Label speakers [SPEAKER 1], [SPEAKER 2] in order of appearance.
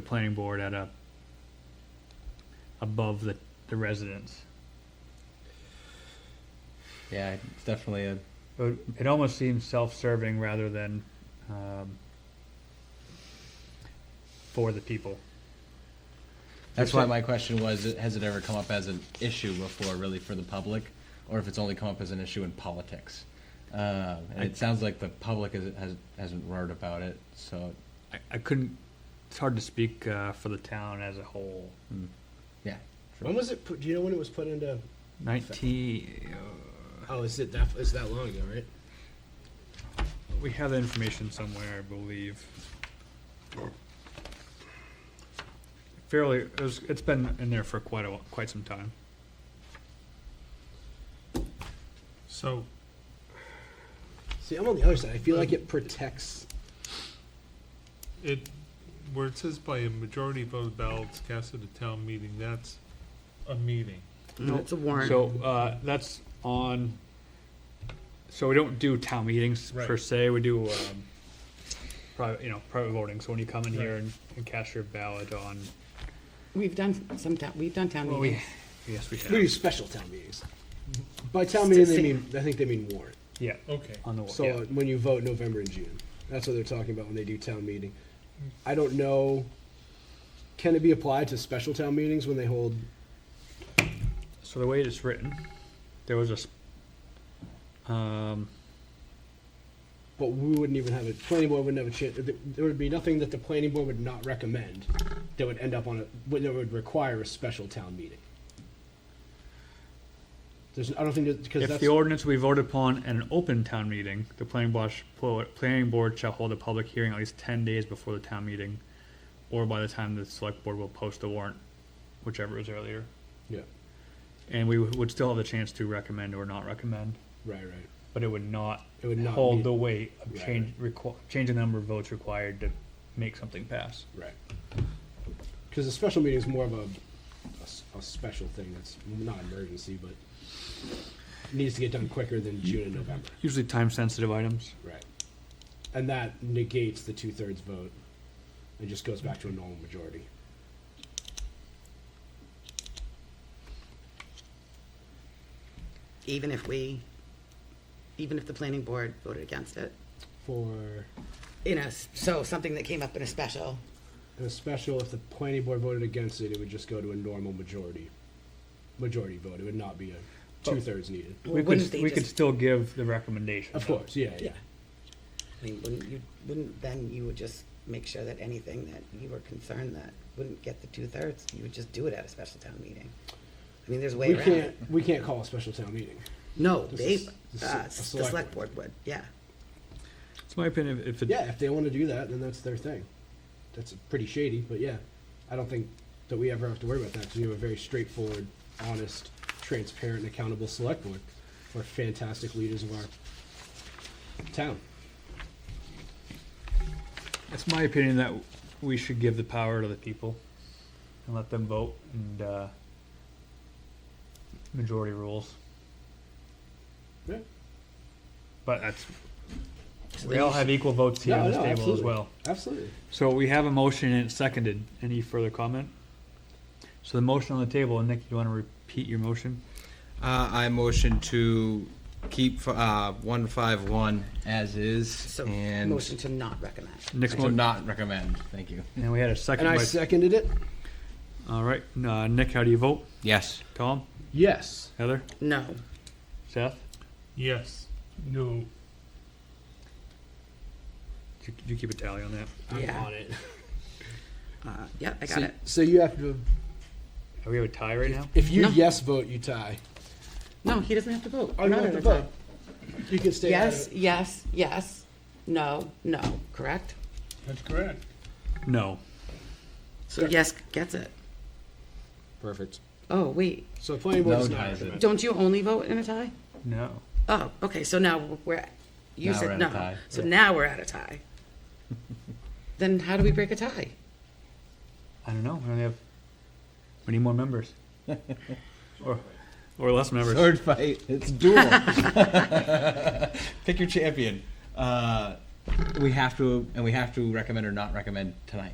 [SPEAKER 1] the planning board at a, above the, the residence.
[SPEAKER 2] Yeah, it's definitely a.
[SPEAKER 1] It it almost seems self-serving rather than, um, for the people.
[SPEAKER 2] That's why my question was: it- Has it ever come up as an issue before, really, for the public, or if it's only come up as an issue in politics? Uh, and it sounds like the public is, has hasn't roared about it. So,
[SPEAKER 1] I, I couldn't, it's hard to speak, uh, for the town as a whole.
[SPEAKER 2] yeah.
[SPEAKER 3] When was it put, do you know when it was put into,
[SPEAKER 1] Nineteen,
[SPEAKER 3] oh, is it that, is that long ago, right?
[SPEAKER 1] we have the information somewhere, I believe. Fairly, it was, it's been in there for quite a, wh- quite some time.
[SPEAKER 4] So,
[SPEAKER 3] See, I'm on the other side, I feel like it protects,
[SPEAKER 4] it, where it says by a majority vote of ballots cast at a town meeting, that's a meeting.
[SPEAKER 5] It's a warrant.
[SPEAKER 1] So, uh, that's on, so we don't do town meetings per
[SPEAKER 4] Right.
[SPEAKER 1] se, we do, um, private, you know, private voting, so when you come in here
[SPEAKER 4] Right.
[SPEAKER 1] and, and cast your ballot on,
[SPEAKER 5] We've done some town, we've done town
[SPEAKER 1] well, we,
[SPEAKER 5] meetings.
[SPEAKER 1] yes, we
[SPEAKER 3] we do
[SPEAKER 1] have,
[SPEAKER 3] special town meetings. By town meeting, they mean, I think they mean warrant.
[SPEAKER 1] yeah,
[SPEAKER 4] Okay.
[SPEAKER 1] on the, wa-
[SPEAKER 3] So
[SPEAKER 1] yeah.
[SPEAKER 3] uh, when you vote November and June, that's what they're talking about when they do town meeting. I don't know, can it be applied to special town meetings when they hold,
[SPEAKER 1] So the way it's written, there was a, s- um,
[SPEAKER 3] but we wouldn't even have a, planning board wouldn't have a chance, there would be nothing that the planning board would not recommend that would end up on a, that would require a special town meeting. There's, I don't think, that- because that's.
[SPEAKER 1] If the ordinance we voted upon at an open town meeting, the planning board, sh- pl- planning board shall hold a public hearing at least ten days before the town meeting, or by the time the select board will post the warrant, whichever is earlier.
[SPEAKER 3] Yeah,
[SPEAKER 1] And we w- would still have the chance to recommend or not recommend,
[SPEAKER 3] right, right.
[SPEAKER 1] but it would not
[SPEAKER 3] It would not
[SPEAKER 1] hold
[SPEAKER 3] be-
[SPEAKER 1] the weight of
[SPEAKER 3] Right,
[SPEAKER 1] change, requ- change the number of votes required to make something pass.
[SPEAKER 3] Right. Because a special meeting is more of a, a s- a special thing that's not emergency, but needs to get done quicker than June and November.
[SPEAKER 1] Usually time-sensitive items.
[SPEAKER 3] Right. And that negates the two thirds vote and just goes back to a normal majority.
[SPEAKER 5] Even if we, even if the planning board voted against it.
[SPEAKER 3] For
[SPEAKER 5] You know, s- so something that came up in a special,
[SPEAKER 3] in a special, if the planning board voted against it, it would just go to a normal majority. Majority vote. It would not be a two thirds needed.
[SPEAKER 5] Well,
[SPEAKER 1] We could,
[SPEAKER 5] wouldn't
[SPEAKER 1] st-
[SPEAKER 5] they
[SPEAKER 1] we could
[SPEAKER 5] just-
[SPEAKER 1] still give the recommendation.
[SPEAKER 3] Of course, yeah, yeah.
[SPEAKER 5] yeah. I mean, wouldn't you, wouldn't then you would just make sure that anything that you were concerned that wouldn't get the two-thirds, you would just do it at a special town meeting? I mean, there's way
[SPEAKER 3] We
[SPEAKER 5] around it.
[SPEAKER 3] can't we can't call a special town meeting.
[SPEAKER 5] No,
[SPEAKER 3] This
[SPEAKER 5] they,
[SPEAKER 3] is- this is
[SPEAKER 5] uh,
[SPEAKER 3] a
[SPEAKER 5] the
[SPEAKER 3] select
[SPEAKER 5] select
[SPEAKER 3] board.
[SPEAKER 5] board would, yeah.
[SPEAKER 1] It's my opinion, if- if it.
[SPEAKER 3] Yeah, if they want to do that, then that's their thing. That's pretty shady, but yeah, I don't think that we ever have to worry about that because we have a very straightforward, honest, transparent, and accountable select board. We're fantastic leaders of our town.
[SPEAKER 1] It's my opinion that we should give the power to the people and let them vote and uh, majority rules.
[SPEAKER 3] Yeah.
[SPEAKER 1] But that's
[SPEAKER 5] So
[SPEAKER 1] we
[SPEAKER 5] then
[SPEAKER 1] all
[SPEAKER 5] you
[SPEAKER 1] have equal votes here
[SPEAKER 3] No,
[SPEAKER 1] on this
[SPEAKER 3] no,
[SPEAKER 1] table as
[SPEAKER 3] absolutely.
[SPEAKER 1] well.
[SPEAKER 3] Absolutely.
[SPEAKER 1] So we have a motion and it's seconded. Any further comment? So the motion on the table, and Nick, you want to repeat your motion?
[SPEAKER 2] Uh, I motion to keep uh, one five one as is
[SPEAKER 5] should- So,
[SPEAKER 2] and
[SPEAKER 5] motion to not recommend.
[SPEAKER 1] Nick's
[SPEAKER 2] to
[SPEAKER 1] motion.
[SPEAKER 2] not recommend. Thank you.
[SPEAKER 1] And we had a second.
[SPEAKER 3] And I
[SPEAKER 1] by-
[SPEAKER 3] seconded it.
[SPEAKER 1] all right, uh, Nick, how do you vote?
[SPEAKER 2] Yes.
[SPEAKER 1] Tom,
[SPEAKER 3] Yes.
[SPEAKER 1] Heather,
[SPEAKER 5] No,
[SPEAKER 1] Seth.
[SPEAKER 4] Yes. No.
[SPEAKER 1] Did you, did you keep a tally on that?
[SPEAKER 3] I'm
[SPEAKER 5] Yeah.
[SPEAKER 3] on it.
[SPEAKER 5] uh, yeah, I got
[SPEAKER 3] So,
[SPEAKER 5] it.
[SPEAKER 3] so you have to.
[SPEAKER 1] Are we have a tie right now?
[SPEAKER 3] If you
[SPEAKER 5] No.
[SPEAKER 3] yes vote, you tie.
[SPEAKER 5] No, he doesn't have to vote.
[SPEAKER 3] Oh, you
[SPEAKER 5] Not
[SPEAKER 3] have
[SPEAKER 5] in
[SPEAKER 3] to
[SPEAKER 5] a tie.
[SPEAKER 3] vote. You can stay. out of
[SPEAKER 5] Yes,
[SPEAKER 3] it.
[SPEAKER 5] yes, yes, no, no, correct?
[SPEAKER 4] That's correct.
[SPEAKER 1] No.
[SPEAKER 5] So yes gets it.
[SPEAKER 3] Perfect.
[SPEAKER 5] Oh, wait,
[SPEAKER 3] So planning board
[SPEAKER 2] No
[SPEAKER 3] is not.
[SPEAKER 2] ties it.
[SPEAKER 3] recommended.
[SPEAKER 5] don't you only vote in a tie?
[SPEAKER 1] No.
[SPEAKER 5] Oh, okay, so now we're, you
[SPEAKER 2] Now we're
[SPEAKER 5] said
[SPEAKER 2] at a
[SPEAKER 5] no,
[SPEAKER 2] tie.
[SPEAKER 5] so now we're at a tie. Then how do we break a tie?
[SPEAKER 1] I don't know. We only have. We need more members. or, or less members.
[SPEAKER 2] Sword fight. It's duel. Pick your champion. Uh, we have to, and we have to recommend or not recommend tonight.